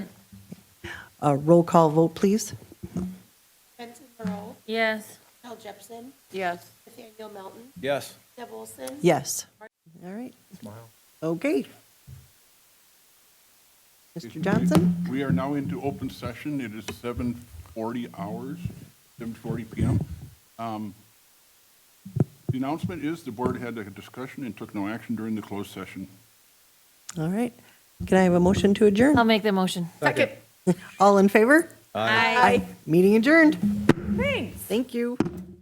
A Uh, roll call vote, please. Benson Burrow, Yes. Al Jepson, Yes. Nathaniel Melton, Yes. Deb Olson. Yes. All right. Okay. Mr. Johnson? We are now into open session. It is 7:40 hours, 7:40 PM. Um, The announcement is the board had a discussion and took no action during the closed session. All right. Can I have a motion to I'll adjourn? make the motion. Second. All in favor? Aye. Meeting adjourned. Thanks. Thank you.